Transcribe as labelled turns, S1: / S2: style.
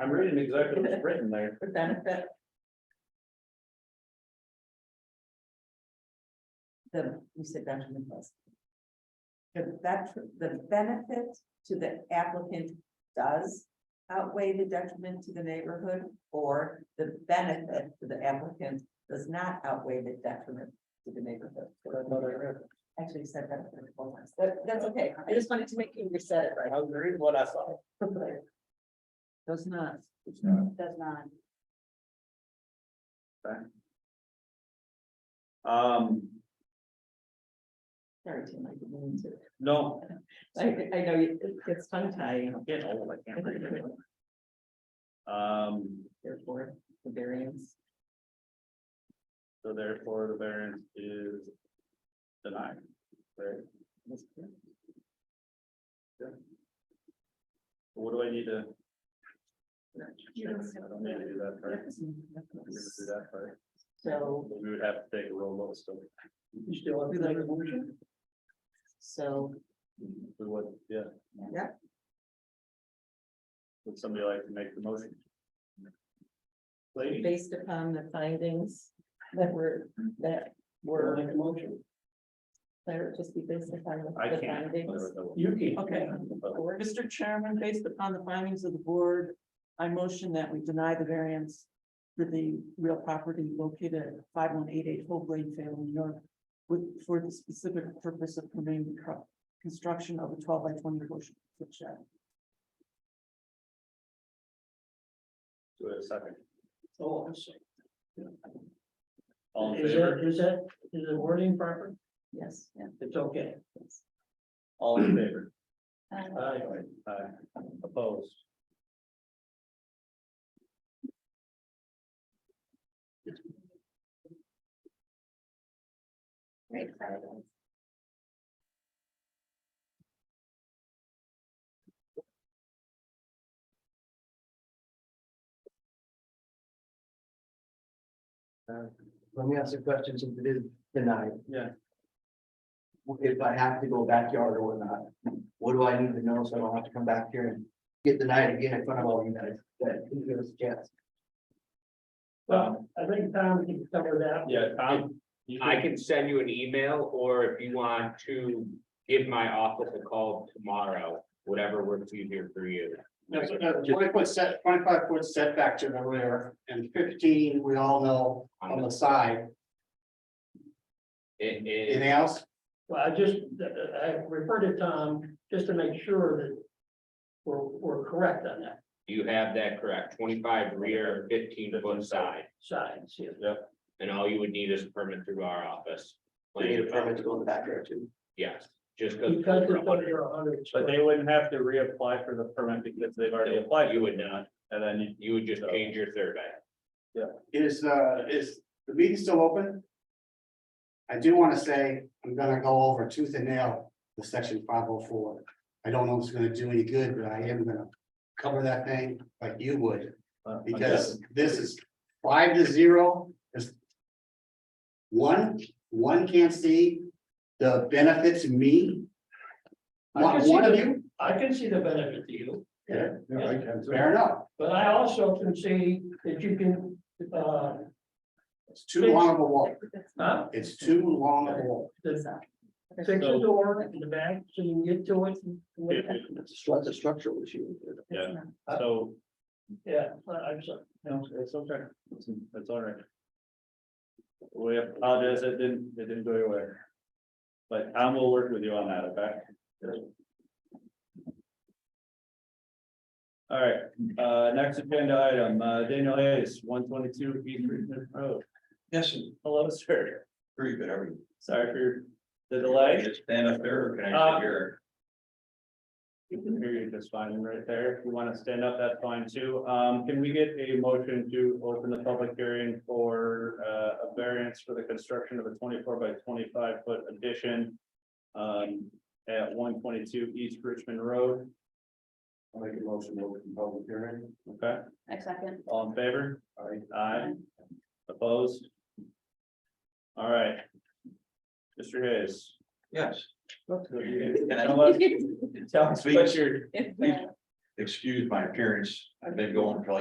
S1: I'm reading exactly what's written there.
S2: the benefit. The, you said Benjamin Plus. The bet, the benefit to the applicant does outweigh the detriment to the neighborhood, or the benefit to the applicant does not outweigh the detriment to the neighborhood. Actually you said that before once, but that's okay, I just wanted to make you reset it
S1: I was reading what I saw.
S2: right. Does not.
S1: It's not.
S2: Does not.
S1: Um,
S2: Sorry, Tim, I didn't mean to.
S1: no,
S2: I, I know it it gets tongue tied,
S1: I'm getting old, I can't read it. Um,
S2: therefore, the variance.
S1: so therefore the variance is denied, right?
S2: is-
S1: What do I need to?
S2: You
S1: I
S2: don't have to-
S1: don't need to do that part. We need to do that part.
S2: So,
S1: We would have to take a roll of stuff.
S2: You still want to do that resolution? so,
S1: We would, yeah.
S2: Yeah.
S1: Would somebody like to make the motion? Lady?
S2: based upon the findings that were, that were,
S1: motion.
S2: that would just be based upon the
S1: I
S2: the
S1: can't.
S2: findings.
S1: You
S3: can. Okay. Mr. Chairman, based upon the findings of the board, I motion that we deny the variance for the real property located at five one eight eight Hope Lane, Salem, New York, with, for the specific purpose of permitting the cro- construction of a twelve by twenty foot sh- foot shed.
S1: Do it a second.
S4: Oh, I'm sorry.
S1: All in
S4: Is that,
S1: favor,
S4: is that, is the wording proper?
S2: Yes, yeah.
S4: It's okay.
S1: all in favor,
S2: Um,
S4: Aye.
S1: aye, opposed.
S2: Great.
S5: Let me ask you a question, since it is denied.
S1: Yeah.
S5: If I have to go backyard or whatnot, what do I need to know so I don't have to come back here and get denied again in front of all you guys? That you give us a chance.
S1: Well,
S3: Um,
S4: I think Tom can cover that.
S1: Yeah, Tom. you
S6: I can send you an email, or if you want to give my office a call tomorrow, whatever works easier for you.
S7: That's another twenty foot set, twenty five foot setback to the rear and fifteen, we all know on the side.
S6: Um, It is,
S7: Anything else?
S3: Well, I just, uh, I refer to Tom just to make sure that we're, we're correct on that
S6: you have that correct, twenty-five rear, fifteen foot side,
S3: side, see,
S6: and all you would need is a permit through our office.
S5: We need a permit to go in the backyard too.
S6: Yes, just because.
S3: because it's under a hundred.
S1: But they wouldn't have to reapply for the permit because they've already applied.
S6: You would not,
S1: And then you,
S6: you would just change your survey.
S7: Is, uh, is the meeting still open? I do want to say, I'm gonna go over tooth and nail the section five oh four. I don't know if it's gonna do any good, but I am gonna cover that thing like you would,
S1: uh,
S7: because this is five to zero is. One, one can't see the benefit to me.
S3: I can
S7: Not
S3: see
S7: one of
S3: the-
S7: you,
S3: I can see the benefit to you,
S7: Yeah,
S3: I
S7: fair enough.
S3: but I also can see that you can, uh,
S7: It's too long of a walk.
S1: Uh,
S3: huh,
S7: It's too long of a walk.
S3: fix the door in the back so you can get to it.
S1: Yeah.
S5: It's a stru- it's a structural issue.
S1: Yeah. So,
S3: Yeah, I'm sorry.
S1: no, it's okay, it's, it's all right. We apologize, it didn't, it didn't go your way. But Tom will work with you on that, okay? All right, uh, next agenda item, uh, Daniel Hayes, one twenty-two East Richmond Road.
S8: Yes,
S1: Hello, sir.
S8: very good, how are you?
S1: Sorry for the delay.
S8: Just stand up there, or can
S1: Uh,
S8: I sit here?
S1: You can hear you just fine right there. If you want to stand up, that's fine too. Um, can we get a motion to open the public hearing for uh, a variance for the construction of a twenty-four by twenty-five foot addition um, at one twenty-two East Richmond Road,
S7: I'll make a motion to open public hearing.
S1: okay?
S2: A second.
S1: All in favor? Aye. Aye. Opposed? All right. Mr. Hayes.
S8: Yes.
S1: You
S8: Can
S1: know
S8: I-
S1: what? Tell us what your
S8: Excuse my appearance, I've been going for like